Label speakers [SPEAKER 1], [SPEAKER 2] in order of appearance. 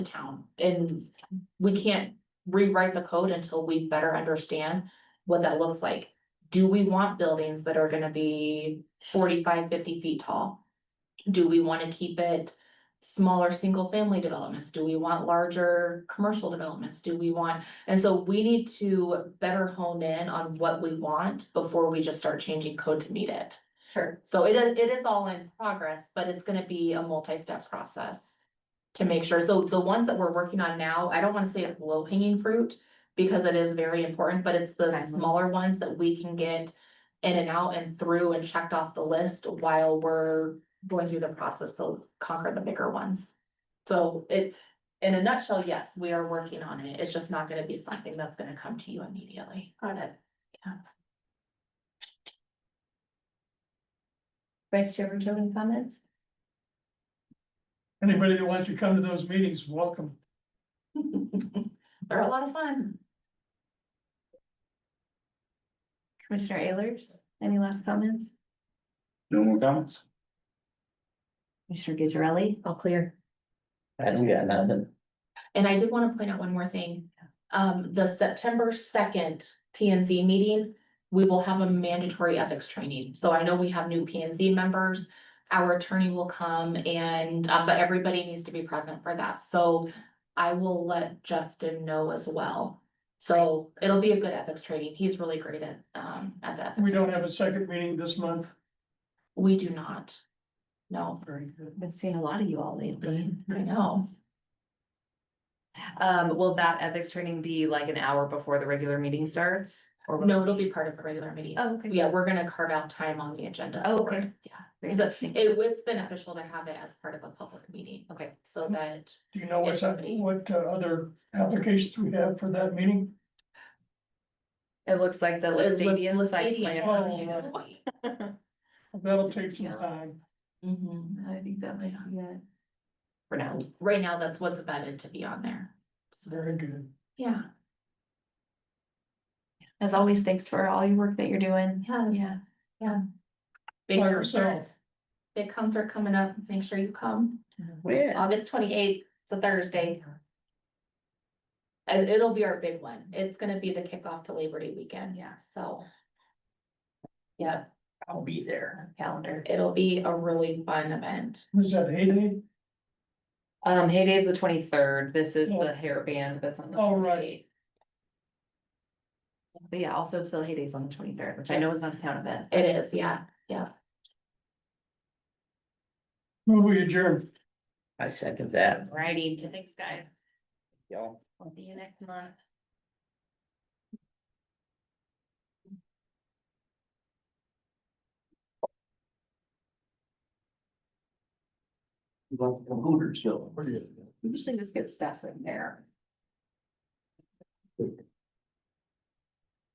[SPEAKER 1] the town and we can't rewrite the code until we better understand what that looks like. Do we want buildings that are gonna be 45, 50 feet tall? Do we wanna keep it smaller, single-family developments? Do we want larger commercial developments? Do we want? And so we need to better hone in on what we want before we just start changing code to meet it.
[SPEAKER 2] Sure.
[SPEAKER 1] So it is, it is all in progress, but it's gonna be a multi-step process. To make sure, so the ones that we're working on now, I don't wanna say it's low hanging fruit, because it is very important, but it's the
[SPEAKER 2] Okay.
[SPEAKER 1] smaller ones that we can get. In and out and through and checked off the list while we're going through the process to conquer the bigger ones. So it, in a nutshell, yes, we are working on it, it's just not gonna be something that's gonna come to you immediately.
[SPEAKER 2] Got it.
[SPEAKER 1] Yeah.
[SPEAKER 2] Vice Chair Ruto, any comments?
[SPEAKER 3] Anybody that wants to come to those meetings, welcome.
[SPEAKER 1] They're a lot of fun.
[SPEAKER 2] Commissioner Ehlers, any last comments?
[SPEAKER 4] No more comments?
[SPEAKER 2] Commissioner Gizarelli? All clear.
[SPEAKER 4] I don't got nothing.
[SPEAKER 1] And I did wanna point out one more thing. Um, the September second P and Z meeting, we will have a mandatory ethics training. So I know we have new P and Z members. Our attorney will come and, uh, but everybody needs to be present for that. So I will let Justin know as well. So it'll be a good ethics training. He's really great at, um, at that.
[SPEAKER 3] We don't have a second meeting this month.
[SPEAKER 1] We do not. No,
[SPEAKER 3] Very good.
[SPEAKER 2] Been seeing a lot of you all lately.
[SPEAKER 1] I know.
[SPEAKER 5] Um, will that ethics training be like an hour before the regular meeting starts? Or will-
[SPEAKER 1] No, it'll be part of a regular meeting.
[SPEAKER 2] Oh, okay.
[SPEAKER 1] Yeah, we're gonna carve out time on the agenda.
[SPEAKER 2] Oh,
[SPEAKER 1] for it.
[SPEAKER 2] okay.
[SPEAKER 1] Yeah.
[SPEAKER 5] Very
[SPEAKER 1] So
[SPEAKER 5] interesting.
[SPEAKER 1] it it's beneficial to have it as part of a public meeting,
[SPEAKER 5] Okay,
[SPEAKER 1] so that,
[SPEAKER 3] Do you know what's,
[SPEAKER 1] Yes.
[SPEAKER 3] what uh, other applications we have for that meeting?
[SPEAKER 5] it looks like the
[SPEAKER 1] It looks-
[SPEAKER 5] Lestadian site
[SPEAKER 1] Lestadian.
[SPEAKER 5] plan.
[SPEAKER 3] Oh, That'll take some time.
[SPEAKER 1] Mhm.
[SPEAKER 2] mm-hmm. I think that might be it.
[SPEAKER 5] for now.
[SPEAKER 1] right now, that's what's vetted to be on there. So,
[SPEAKER 3] Very good.
[SPEAKER 1] yeah,
[SPEAKER 2] As always, thanks for all your work that you're doing.
[SPEAKER 1] yes,
[SPEAKER 2] Yeah.
[SPEAKER 1] yeah. Big
[SPEAKER 3] By
[SPEAKER 1] concert,
[SPEAKER 3] yourself.
[SPEAKER 1] big concert coming up, make sure you come,
[SPEAKER 4] Yeah.
[SPEAKER 1] August twenty eighth, it's a Thursday. And Uh, it'll be our big one, it's gonna be the kickoff to Labor Day weekend, yeah, so. Yeah,
[SPEAKER 4] I'll be there.
[SPEAKER 2] Calendar.
[SPEAKER 1] it'll be a really fun event.
[SPEAKER 3] Was that heyday?
[SPEAKER 5] Um, Heyday is the twenty-third. This is
[SPEAKER 3] Yeah.
[SPEAKER 5] the hair band that's on the.
[SPEAKER 3] Oh, right.
[SPEAKER 5] 28th.
[SPEAKER 2] But yeah, also still Hades on the twenty-third, which I know is not a town event.
[SPEAKER 1] It is, yeah,
[SPEAKER 3] Move we adjourn.
[SPEAKER 4] I second that.
[SPEAKER 5] Alrighty, thanks, guys.
[SPEAKER 4] Y'all.
[SPEAKER 5] We'll see you next month.
[SPEAKER 4] Well, the Hooters go.
[SPEAKER 2] Usually just get stuff in there.